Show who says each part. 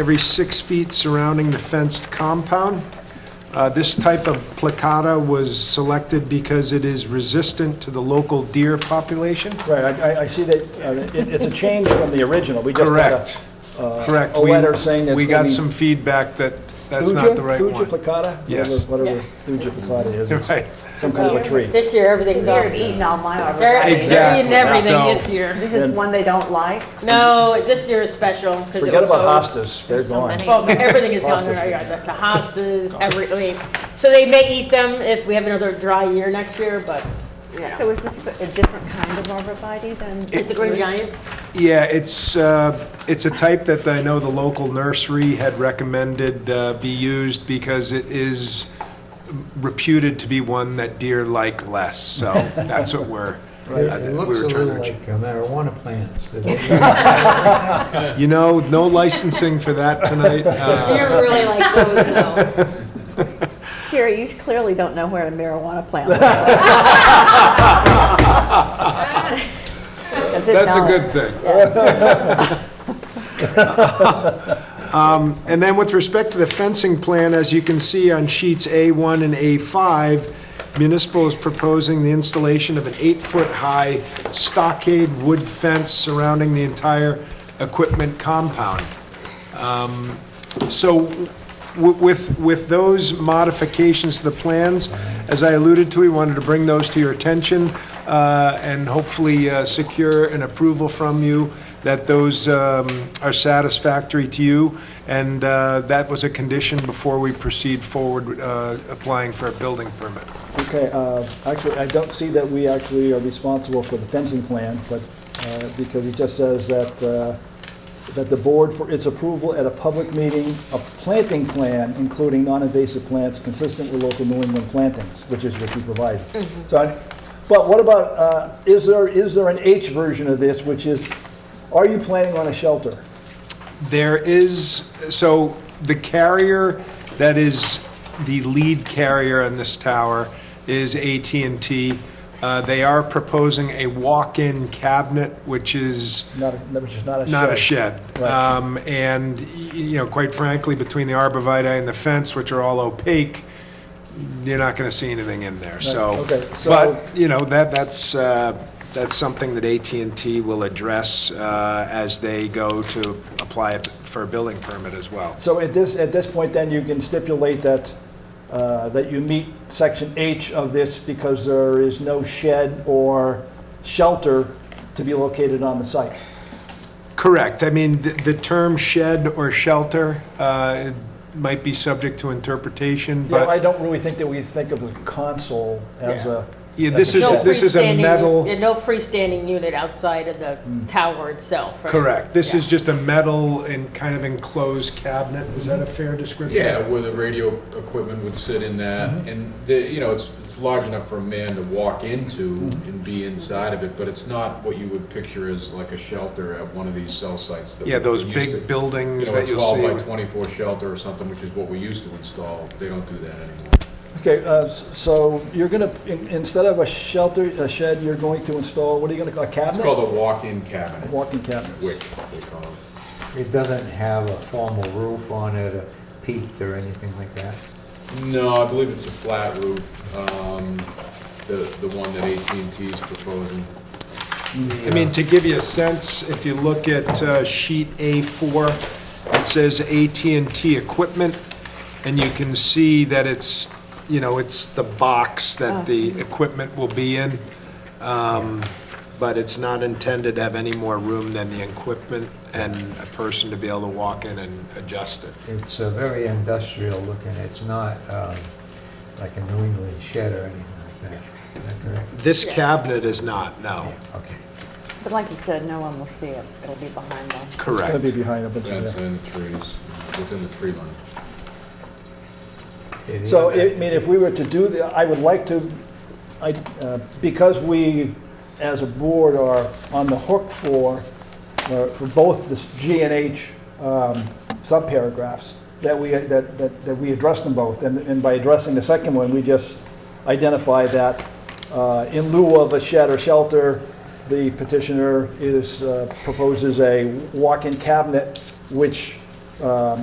Speaker 1: every six feet surrounding the fenced compound. Uh, This type of placata was selected because it is resistant to the local deer population.
Speaker 2: Right, I, I- I see that, uh, it, it's a change from the original, we just got
Speaker 1: Correct,
Speaker 2: a, uh,
Speaker 1: correct.
Speaker 2: a
Speaker 1: We-
Speaker 2: letter saying that's
Speaker 1: We
Speaker 2: gonna
Speaker 1: got
Speaker 2: be
Speaker 1: some feedback that that's
Speaker 2: Thuja-
Speaker 1: not the right
Speaker 2: Thuja
Speaker 1: one.
Speaker 2: placata?
Speaker 1: Yes.
Speaker 2: Whatever thuja placata is, it's
Speaker 1: Right.
Speaker 2: some kind of a tree.
Speaker 3: This year, everything's
Speaker 4: You're
Speaker 3: off.
Speaker 4: eating all mine
Speaker 3: They're,
Speaker 4: already.
Speaker 3: they're
Speaker 1: Exactly.
Speaker 3: eating everything
Speaker 1: So-
Speaker 3: this year.
Speaker 4: This is one they don't like.
Speaker 3: No, this year is special. 'cause it
Speaker 2: Forget
Speaker 3: was
Speaker 2: about
Speaker 3: so-
Speaker 2: hostas, they're
Speaker 4: There's so
Speaker 2: gone.
Speaker 4: many.
Speaker 3: Well, everything is on
Speaker 2: Hostas.
Speaker 3: there, yeah, the- the hostas, everything. So they may eat them if we have another dry year next year, but, you know.
Speaker 4: So is this a different kind of arborvitae than?
Speaker 3: Is the green giant?
Speaker 1: Yeah, it's, uh, it's a type that I know the local nursery had recommended uh, be used because it is reputed to be one that deer like less, so that's what we're, uh,
Speaker 5: It
Speaker 1: that
Speaker 5: it
Speaker 1: we
Speaker 5: looks
Speaker 1: were
Speaker 5: a
Speaker 1: trying
Speaker 5: little
Speaker 1: to.
Speaker 5: like marijuana plants.
Speaker 1: achieve. You know, no licensing for that tonight.
Speaker 3: Do you
Speaker 1: Uh,
Speaker 3: really like those though?
Speaker 4: Sherry, you clearly don't know where a marijuana plant is.
Speaker 1: That's a good thing. Um, And then with respect to the fencing plan, as you can see on sheets A1 and A5, municipal is proposing the installation of an eight-foot-high stockade wood fence surrounding the entire equipment compound. Um, So w- with, with those modifications to the plans, as I alluded to, we wanted to bring those to your attention uh, and hopefully uh, secure an approval from you that those um, are satisfactory to you. And uh, that was a condition before we proceed forward uh, applying for a building permit.
Speaker 2: Okay, uh, actually, I don't see that we actually are responsible for the fencing plan, but, uh, because it just says that, uh, that the board for its approval at a public meeting, a planting plan, including non-invasive plants consistent with local New England plantings, which is what you provided. So, I- but what about, uh, is there, is there an H version of this, which is, are you planning on a shelter?
Speaker 1: There is, so the carrier that is the lead carrier in this tower is at and T. Uh, They are proposing a walk-in cabinet, which is
Speaker 2: Not, a- which is not a shed?
Speaker 1: not a shed.
Speaker 2: Right.
Speaker 1: Um, And, y- you know, quite frankly, between the arborvitae and the fence, which are all opaque, you're not going to see anything in there, so.
Speaker 2: okay, so-
Speaker 1: But, you know, that, that's, uh, that's something that at and T will address uh, as they go to apply for a building permit as well.
Speaker 2: So at this, at this point, then, you can stipulate that, uh, that you meet section H of this because there is no shed or shelter to be located on the site.
Speaker 1: Correct. I mean, th- the term shed or shelter uh, might be subject to interpretation,
Speaker 2: Yeah, I
Speaker 1: but
Speaker 2: don't really think that we think of the console as a.
Speaker 1: yeah, this is,
Speaker 2: No
Speaker 1: this is a
Speaker 3: freestanding-
Speaker 1: metal. Mm.
Speaker 3: yeah, No freestanding unit outside of the tower itself, right?
Speaker 1: Correct. This
Speaker 3: Yeah.
Speaker 1: is just a metal and kind of enclosed cabinet. Is that a fair description?
Speaker 6: Yeah, where the radio equipment would sit in
Speaker 1: Mm-hmm.
Speaker 6: that, and the, you know, it's, it's large enough for a man to walk into
Speaker 1: Mm-hmm.
Speaker 6: and be inside of it, but it's not what you would picture as like a shelter at one of these cell sites that.
Speaker 1: Yeah,
Speaker 6: we
Speaker 1: those
Speaker 6: used to-
Speaker 1: big buildings
Speaker 6: You know, a
Speaker 1: that you'll see.
Speaker 6: twelve by
Speaker 1: with-
Speaker 6: twenty-four shelter or something, which is what we used to install, they don't do that anymore.
Speaker 2: Okay, uh, s- so you're gonna, in- instead of a shelter, a shed, you're going to install, what are you gonna call, a
Speaker 6: It's
Speaker 2: cabinet?
Speaker 6: called a walk-in cabinet,
Speaker 2: Walking cabinet.
Speaker 6: wick, they call it.
Speaker 5: It doesn't have a formal roof on it, a peak or anything like that.
Speaker 6: No, I believe it's a flat roof, um, the, the one that AT&T is proposing.
Speaker 1: I mean, to give you a sense, if you look at uh, sheet A4, it says at and T Equipment, and you can see that it's, you know, it's the box that the equipment will be in, um, but it's not intended to have any more room than the equipment and a person to be able to walk in and adjust it.
Speaker 5: It's uh, very industrial looking, it's not um, like a New England shed or anything like that. Is that correct?
Speaker 1: This cabinet is not, no.
Speaker 5: Okay.
Speaker 4: But like you said, no one will see it. It'll be behind them.
Speaker 2: It's
Speaker 1: Correct.
Speaker 2: gonna be behind a bunch of.
Speaker 6: Fence and the trees, within the tree line.
Speaker 5: Okay, the
Speaker 2: So,
Speaker 5: other-
Speaker 2: I mean, if we were to do, the, I would like to, I, uh, because we, as a board, are on the hook for, uh, for both this G and H um, subparagraphs, that we, uh, that, that that we address them both. And and by addressing the second one, we just identify that uh, in lieu of a shed or shelter, the petitioner is, uh, proposes a walk-in cabinet, which um,